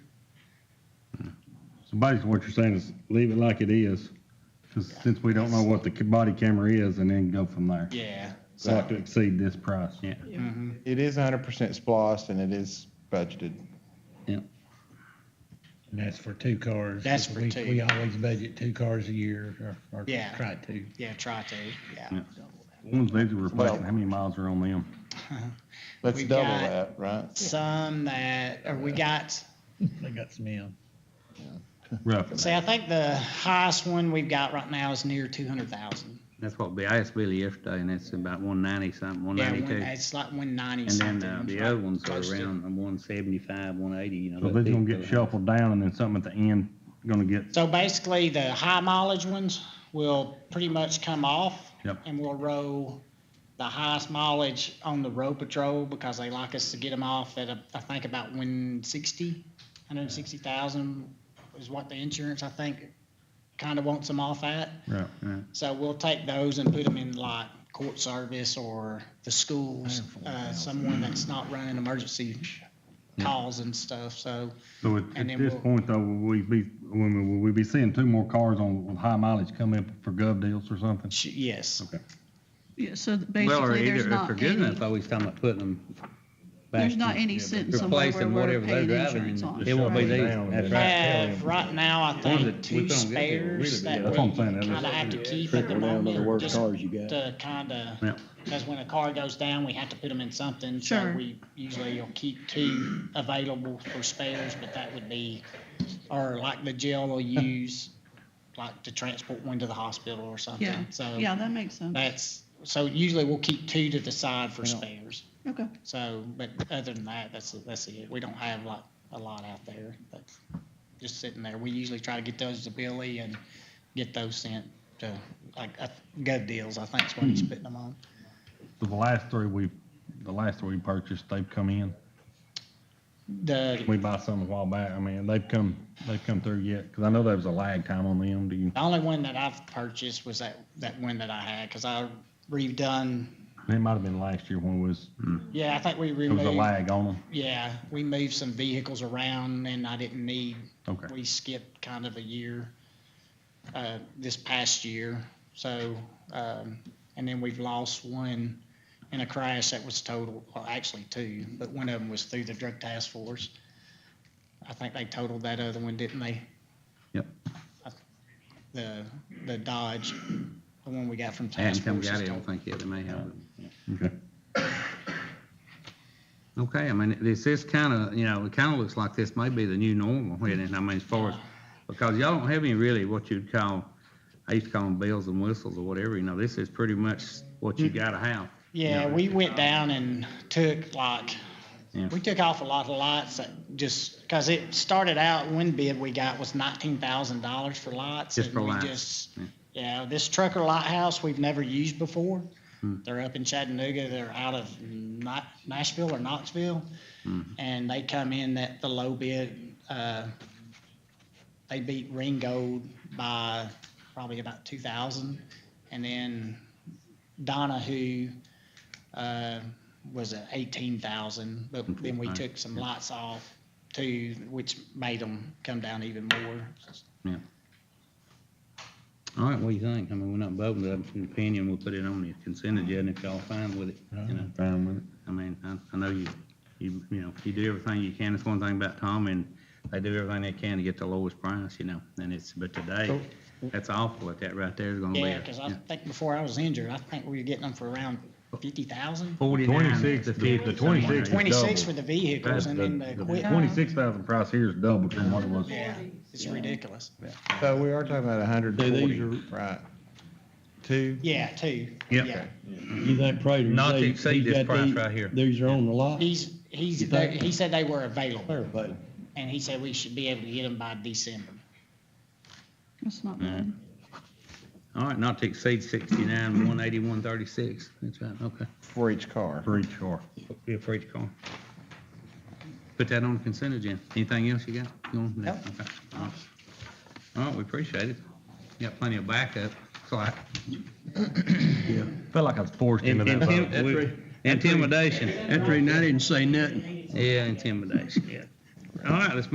So basically what you're saying is leave it like it is, 'cause since we don't know what the ca- body camera is and then go from there. Yeah. So Not to exceed this price, yeah. It is hundred percent spliced and it is budgeted. And that's for two cars. That's for We- two. We always budget two cars a year or, or Yeah. try to. Yeah, try to, yeah. Yeah. Ones these are replacing, how many miles are on them? Let's We've double got- that, right? Some that, or we got, They got some in. see, Roughly. I think the highest one we've got right now is near two hundred thousand. That's what, I asked Billy yesterday, eh, and it's about one ninety something, one Yeah, one- ninety-two. it's like one ninety And something. then uh, the other ones are around one seventy-five, one eighty, you know. So that these gonna big get fella. shuffled down and then something at the end gonna get So basically, the high mileage ones will pretty much come off. Yep. And we'll roll the highest mileage on the road patrol because they like us to get them off at, a- I think about 160, 160,000 is what the insurance, I think, kind of wants them off at. Right. So we'll take those and put them in like court service or the schools, uh, someone that's not running emergency calls and stuff, so. So at, And at then this we'll- point though, will we be, when we, will we be seeing two more cars on, with high mileage come up for gov deals or something? sh- Yes, Okay. Yeah, so Well, or basically, either, there's if not they're good any, enough, I always talking about putting them back. there's not to- any sentence somewhere replace where them, we're whatever they're paying driving, insurance and on. It won't be right? these, Down. that's right. have, right now, I Ones think, that we two don't get, they'll really spares be that good. That's what we I'm saying, kind that is- of have to keep at the Trickle down to the moment, worst just cars you got. to kind Yeah. of, because when a car goes down, we have to put them in something. So Sure. we usually will keep two available for spares, but that would be, or like the jail will use, like to transport one to the hospital or Yeah, something. So yeah, that makes sense. that's, so usually we'll keep two to the side for spares. Okay. So, but other than that, that's, that's it. We don't have like a lot out there, but just sitting there. We usually try to get those to Billy and get those sent to, like, uh, gov deals, I think is what he's putting them on. So the last three we, the last three we purchased, they've come in. The, We bought some a while back. I mean, they've come, they've come through yet, cause I know there was a lag time on them. Do you, the only one that I've purchased was that, that one that I had, because I redone, it might have been last year when it was, yeah, I think we there was a removed, lag on them. yeah, we moved some vehicles around and I didn't need Okay. we skipped kind of a year uh, this past year. So, um, and then we've lost one in a crash that was total, well, actually two, but one of them was through the drug task force. I think they totaled that other one, didn't they? Yep. I- The, the Dodge, the one we got from I haven't task come force. got is it, I don't totaled. think yet, they may have it. Okay. Okay, I mean, this is kind of, you know, it kind of looks like this may be the new normal, and I mean, as far as, because y'all don't have any really what you'd call, I used to call them bells and whistles or whatever, you know, this is pretty much what you gotta have. Yeah, we went down and took like, Yeah. we took off a lot of lights that just, because it started out, one bid we got was nineteen thousand dollars for lights. Just and for we lights, just- Yeah, this trucker lighthouse we've never used before. Hmm. They're up in Chattanooga, they're out of Na- Nashville or Knoxville. Hmm. And they come in at the low bid, uh, they beat Ringgold by probably about two thousand. And then Donahue, uh, was at eighteen thousand, but then we took some lights off too, which made them come down even more. All right, what do you think? I mean, we're not voting, but it's an opinion, we'll put it on the consent agenda if y'all fine with it, you know? I'm fine with it. I mean, I, I know you, you, you know, you do everything you can. It's one thing about Tom and they do everything they can to get the lowest price, you know, and it's, but today, that's awful what that right there is gonna be. Yeah, a- because I think before I was injured, I think we were getting them for around fifty thousand. Forty-nine 26, the- to fifty. the somewhere. 26 Twenty-six double. for the vehicles and then the equipment. Twenty-six thousand price here is double from what it was. Yeah, it's ridiculous. So we are talking about hundred So forty, these right? Two, Yeah, two. Yep. Yeah. You think Prater? Not to they- exceed he's this got price these- right here. These are on the lot? He's, he's, You think- he said they were available Fair play. and he said we should be able to get them by December. That's not bad. All right, not to exceed sixty-nine, one eighty-one, thirty-six. That's right, okay. for each car. For each car. Be afraid to call. Put that on the consent agenda. Anything else you got? You want- Nope. okay. All right. All right, we appreciate it. You Got plenty of backup, so I, Felt like I was forced into that vote. Intim- we- Intimidation. After he didn't say nothing. Yeah, intimidation, yeah. All right, let's